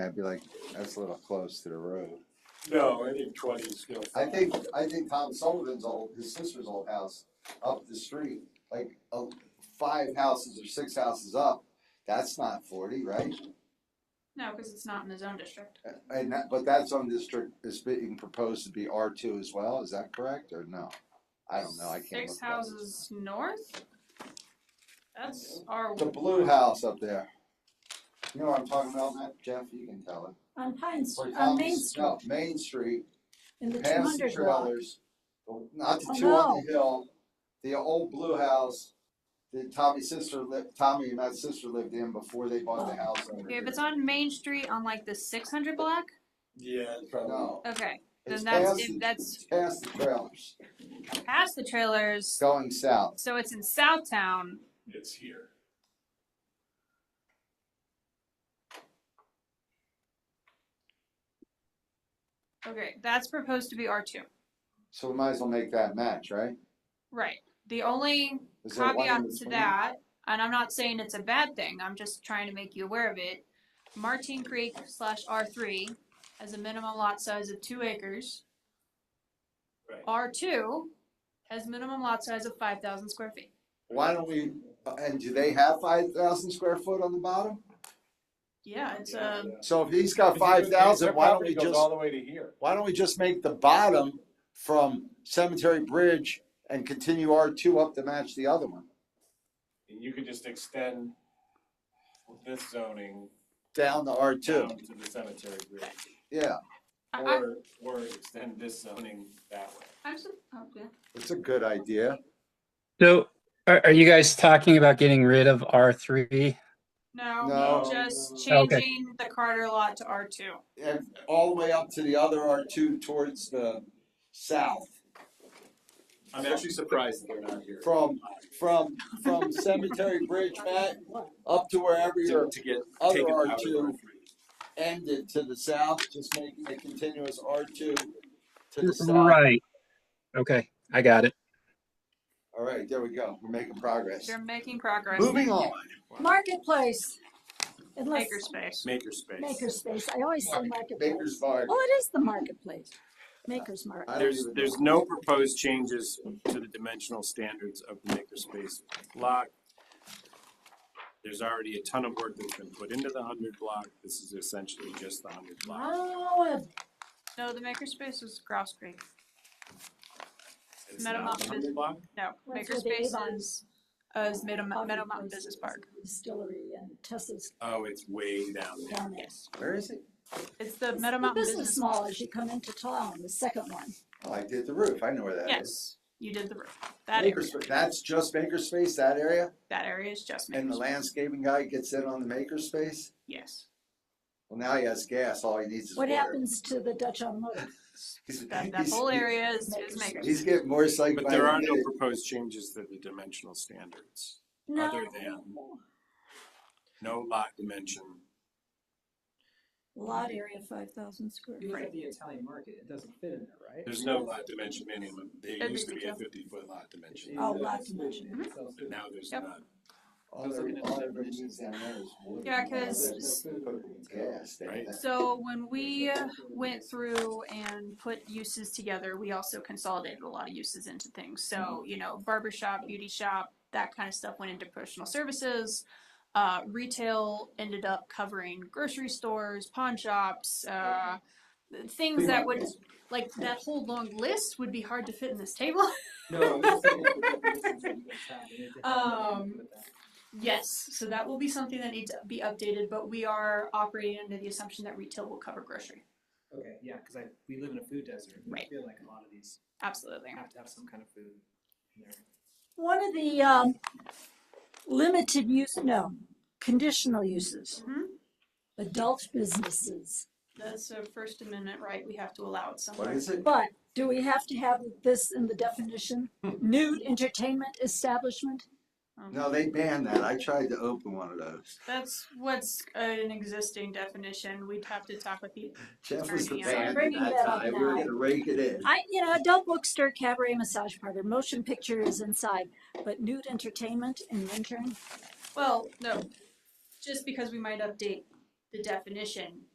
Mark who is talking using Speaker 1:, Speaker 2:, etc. Speaker 1: I'd be like, that's a little close to the road.
Speaker 2: No, I think twenty is still.
Speaker 3: I
Speaker 2: fine.
Speaker 3: think, I think Tom Sullivan's old, his sister's old house up the street, like, uh, five houses or six houses up, that's not forty, right?
Speaker 4: No, because it's not in the zone district.
Speaker 3: And that, but that zone district is being proposed to be R two as well, is that correct, or no? I don't know, I can't
Speaker 4: Six
Speaker 3: look that up.
Speaker 4: houses north? That's our,
Speaker 3: The blue house up there. You know what I'm talking about, Matt? Jeff, you can tell it.
Speaker 5: On Pine, Str-
Speaker 3: Where
Speaker 5: on
Speaker 3: Tom's-
Speaker 5: Main Street,
Speaker 3: No, Main Street,
Speaker 5: in the two
Speaker 3: past the
Speaker 5: hundred block.
Speaker 3: trailers, not the
Speaker 5: Oh,
Speaker 3: two on the hill, the old blue house that Tommy's sister lived, Tommy and Matt's sister lived in before they bought the house over
Speaker 4: okay,
Speaker 3: here.
Speaker 4: if it's on Main Street on like the six hundred block,
Speaker 2: Yeah, probably.
Speaker 3: No,
Speaker 4: okay,
Speaker 3: it's
Speaker 4: Then that's-
Speaker 3: past,
Speaker 4: if
Speaker 3: the-
Speaker 4: that's-
Speaker 3: it's past the trailers,
Speaker 4: past the trailers,
Speaker 3: going south.
Speaker 4: so it's in Southtown.
Speaker 2: It's here.
Speaker 4: Okay, that's proposed to be R two,
Speaker 3: So we might as well make that match, right?
Speaker 4: right? The only
Speaker 3: Is there one in
Speaker 4: caveat to
Speaker 3: between?
Speaker 4: that, and I'm not saying it's a bad thing, I'm just trying to make you aware of it. Martin Creek slash R three has a minimum lot size of two acres.
Speaker 2: Right.
Speaker 4: R two has minimum lot size of five thousand square feet.
Speaker 3: Why don't we, and do they have five thousand square foot on the bottom?
Speaker 4: Yeah, it's um, a,
Speaker 3: So if he's got five thousand, why don't we just?
Speaker 6: All the way to here.
Speaker 3: why don't we just make the bottom from Cemetery Bridge and continue R two up to match the other one?
Speaker 2: And you could just extend this zoning
Speaker 3: Down to R two,
Speaker 2: down to the cemetery bridge.
Speaker 3: yeah,
Speaker 4: I, I,
Speaker 2: Or, or extend this zoning that way.
Speaker 4: I'm so, oh, yeah.
Speaker 3: it's a good idea.
Speaker 7: So are, are you guys talking about getting rid of R3?
Speaker 4: No,
Speaker 3: No.
Speaker 4: just
Speaker 7: Okay.
Speaker 4: changing the Carter lot to R two.
Speaker 3: And all the way up to the other R two towards the south,
Speaker 2: I'm actually surprised that they're not here.
Speaker 3: from, from, from Cemetery Bridge, Matt, up to wherever your
Speaker 2: To get
Speaker 3: other
Speaker 2: taken out
Speaker 3: R
Speaker 2: of
Speaker 3: two
Speaker 2: the-
Speaker 3: ended to the south, just making a continuous R two to the south.
Speaker 7: Right. Okay, I got it.
Speaker 3: All right, there we go, we're making progress.
Speaker 4: They're making progress.
Speaker 3: Moving on.
Speaker 5: Marketplace. Unless,
Speaker 4: Makerspace.
Speaker 2: Makerspace.
Speaker 5: makerspace, I always say marketplace.
Speaker 3: Baker's Bar.
Speaker 5: Well, it is the marketplace, Maker's Market.
Speaker 3: I don't
Speaker 2: There's,
Speaker 3: even know.
Speaker 2: there's no proposed changes to the dimensional standards of the makerspace block. There's already a ton of work that's been put into the hundred block. This is essentially just the hundred block.
Speaker 5: Oh,
Speaker 4: No, the makerspace is Grouse Creek.
Speaker 2: It's not
Speaker 4: Metamorphosis.
Speaker 2: 100 block.
Speaker 4: No,
Speaker 5: What's with the
Speaker 4: makerspace
Speaker 5: Avon?
Speaker 4: is, uh, is Meadow, Meadow Mountain Business Park.
Speaker 5: Distillery and Tessa's
Speaker 2: Oh, it's way down there.
Speaker 5: down there.
Speaker 3: Where is it?
Speaker 4: It's the
Speaker 5: It's
Speaker 4: Meadow
Speaker 5: the
Speaker 4: Mountain
Speaker 5: Business
Speaker 4: Business.
Speaker 5: Mall as you come into town, the second one.
Speaker 3: Oh, I did the roof. I know where that is.
Speaker 4: Yes, you did the roof. That area,
Speaker 3: Makerspa- that's just makerspace, that area,
Speaker 4: that area is just
Speaker 3: and the
Speaker 4: makerspace.
Speaker 3: landscaping guy gets in on the makerspace.
Speaker 4: Yes.
Speaker 3: Well, now he has gas. All he needs is
Speaker 5: What
Speaker 3: water.
Speaker 5: happens to the Dutch on Loop?
Speaker 3: He's,
Speaker 4: That, that
Speaker 3: he's-
Speaker 4: whole area is, is
Speaker 5: Makerspace.
Speaker 3: He's
Speaker 4: makerspace.
Speaker 3: getting more psyched.
Speaker 2: But
Speaker 3: by
Speaker 2: there
Speaker 3: the
Speaker 2: are no
Speaker 3: minute.
Speaker 2: proposed changes to the dimensional standards.
Speaker 5: No.
Speaker 2: Other than- No lot dimension.
Speaker 5: Lot area five thousand square.
Speaker 8: You look
Speaker 5: feet.
Speaker 8: at the Italian market, it doesn't fit in there, right?
Speaker 2: There's no lot dimension minimum. There
Speaker 4: That'd be
Speaker 2: used to be a
Speaker 4: detailed.
Speaker 2: fifty foot lot dimension,
Speaker 5: Oh, lot
Speaker 8: It's-
Speaker 5: dimension.
Speaker 8: it's also-
Speaker 2: but now there's
Speaker 4: Yep.
Speaker 2: not.
Speaker 3: All there- all there really needs down there is water.
Speaker 4: Yeah, 'cause-
Speaker 3: Gas. they-
Speaker 2: Right.
Speaker 4: So when we went through and put uses together, we also consolidated a lot of uses into things.
Speaker 3: Mm-hmm.
Speaker 4: So, you know, barber shop, beauty shop, that kind of stuff went into personal services. Uh, retail ended up covering grocery stores, pawn shops, uh,
Speaker 3: Mm-hmm.
Speaker 4: things that would, like, that whole long list would be hard to fit in this table.
Speaker 8: No, I'm just saying the definitions of what's happening, it
Speaker 4: Um,
Speaker 8: depends on-
Speaker 4: Yes, so that will be something that needs to be updated, but we are operating under the assumption that retail will cover grocery.
Speaker 8: Okay, yeah, because I, we live in a food desert, and I
Speaker 4: Right.
Speaker 8: feel like a lot of these
Speaker 4: Absolutely.
Speaker 8: have to have some kind of food in there.
Speaker 5: One of the um, limited use, no, conditional uses,
Speaker 4: Mhm.
Speaker 5: adult businesses.
Speaker 4: That's a First Amendment right, we have to allow it somewhere.
Speaker 3: What is it?
Speaker 5: But do we have to have this in the definition? Nude entertainment establishment?
Speaker 3: No, they banned that. I tried to open one of those.
Speaker 4: Um, That's what's an existing definition. We'd have to talk with the,
Speaker 3: Jeff was the
Speaker 4: Attorney, I'm
Speaker 3: band at
Speaker 5: bringing
Speaker 3: that
Speaker 5: that up
Speaker 3: time. We were
Speaker 5: now.
Speaker 3: gonna rake it in.
Speaker 5: I, you know, adult bookstore, cabaret, massage parlor, motion picture is inside, but nude entertainment in intern?
Speaker 4: well, no, just because we might update the definition